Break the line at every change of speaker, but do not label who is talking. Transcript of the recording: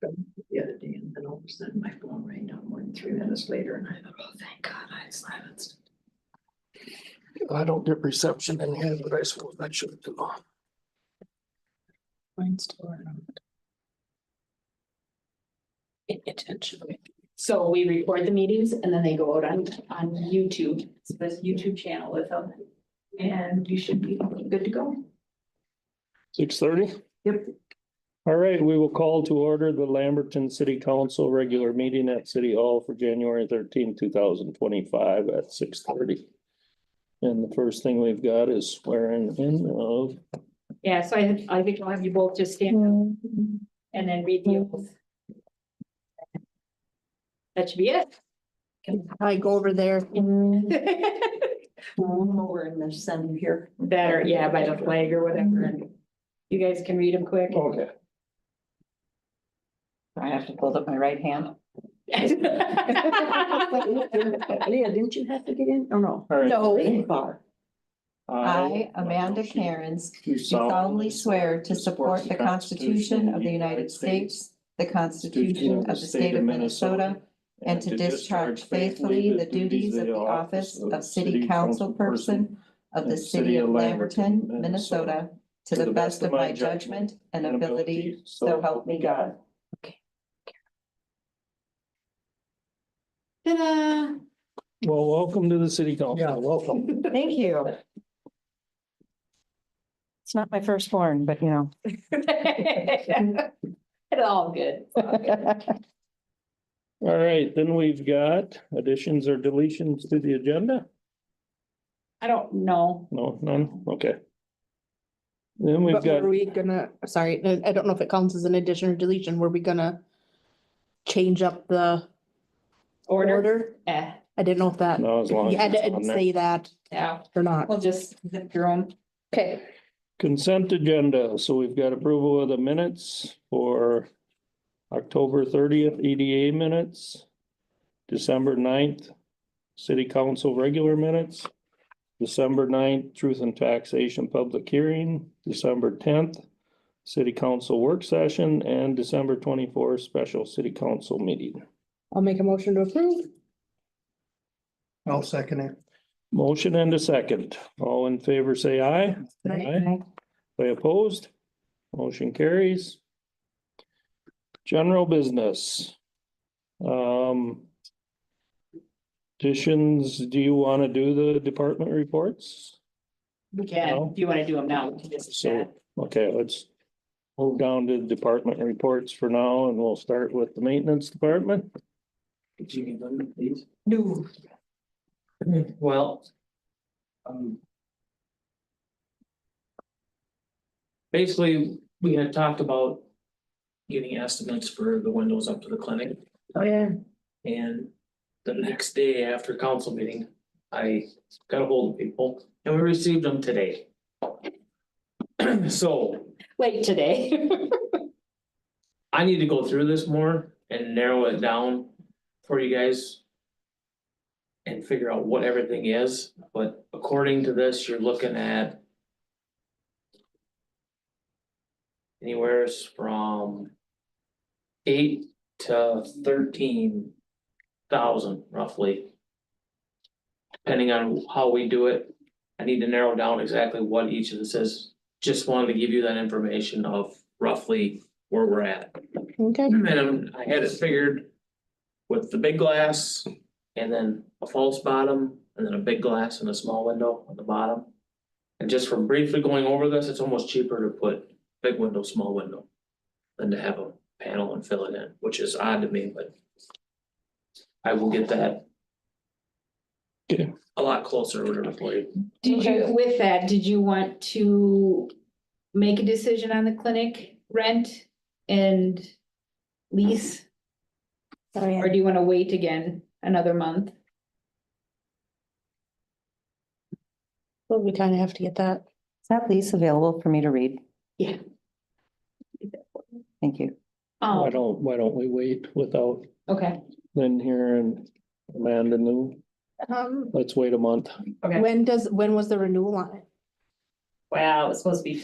from the other day, and then all of a sudden my phone rang not more than three minutes later, and I thought, oh, thank God, I silenced.
I don't get reception in here, but I suppose I should do.
Mine's still around. Intentionally. So we record the meetings and then they go out on, on YouTube, so this YouTube channel with them. And you should be good to go.
Six thirty?
Yep.
All right, we will call to order the Lamberton City Council regular meeting at City Hall for January thirteenth, two thousand twenty-five at six thirty. And the first thing we've got is swearing in of,
Yeah, so I, I think I'll have you both just stand up
Mm-hmm.
and then read the oath. That should be it.
I go over there.
Over in the center here. Mm-hmm.
Better, yeah, by the flag or whatever, and you guys can read them quick.
okay,
I have to hold up my right hand.
Leah, didn't you have to get in? Oh, no.
all right.
No.
Bar.
I, Amanda Karens,
do
do solemnly swear to support the Constitution of the United States, the Constitution of the State of Minnesota, and to discharge faithfully the duties of the office of City Council Person of the City of Lamberton, Minnesota, to the best of my judgment and ability, so help me God.
Ta-da.
Well, welcome to the city council. Yeah, welcome.
Thank you. It's not my firstborn, but you know.
It's all good. It's all good.
All right, then we've got additions or deletions to the agenda?
I don't know.
No, none, okay. Then we've
But
got,
were we gonna, sorry, I I don't know if it counts as an addition or deletion, were we gonna change up the
Order,
order?
eh,
I didn't know if that,
no, as long
yeah, I
as it's on
didn't
there.
say that
Oh.
yeah,
or not.
we'll just zip through them.
Okay.
Consent agenda, so we've got approval of the minutes for October thirtieth EDA minutes, December 9th city council regular minutes, December 9th truth and taxation public hearing, December tenth city council work session, and December twenty-fourth special city council meeting.
I'll make a motion to approve.
I'll second it.
Motion and a second. All in favor, say aye. Aye. They opposed? Motion carries. General business. Um. Additions, do you want to do the department reports?
We can, if you want to do them now, we can just.
So, okay, let's move down to department reports for now and we'll start with the maintenance department.
If you can, go ahead, please.
No.
Well. um, Basically, we had talked about getting estimates for the windows up to the clinic.
Oh, yeah.
And the next day after council meeting, I got a hold of people and we received them today. So
Late today.
I need to go through this more and narrow it down for you guys. And figure out what everything is, but according to this, you're looking at. Anywhere from. Eight to thirteen thousand roughly. Depending on how we do it, I need to narrow down exactly what each of this is, just wanted to give you that information of roughly where we're at.
Okay,
And um, I had it figured with the big glass and then a false bottom and then a big glass and a small window on the bottom. And just from briefly going over this, it's almost cheaper to put big window, small window than to have a panel and fill it in, which is odd to me, but I will get that
Okay.
a lot closer or whatever for you.
Did you, with that, did you want to make a decision on the clinic rent and lease? Or do you wanna wait again another month?
well, we kind of have to get that.
Is that lease available for me to read?
Yeah.
Thank you.
Why
Oh,
don't, why don't we wait without
okay,
Lynn here and Amanda New?
Um,
Let's wait a month.
Okay.
when does, when was the renewal on it?
wow, it's supposed to be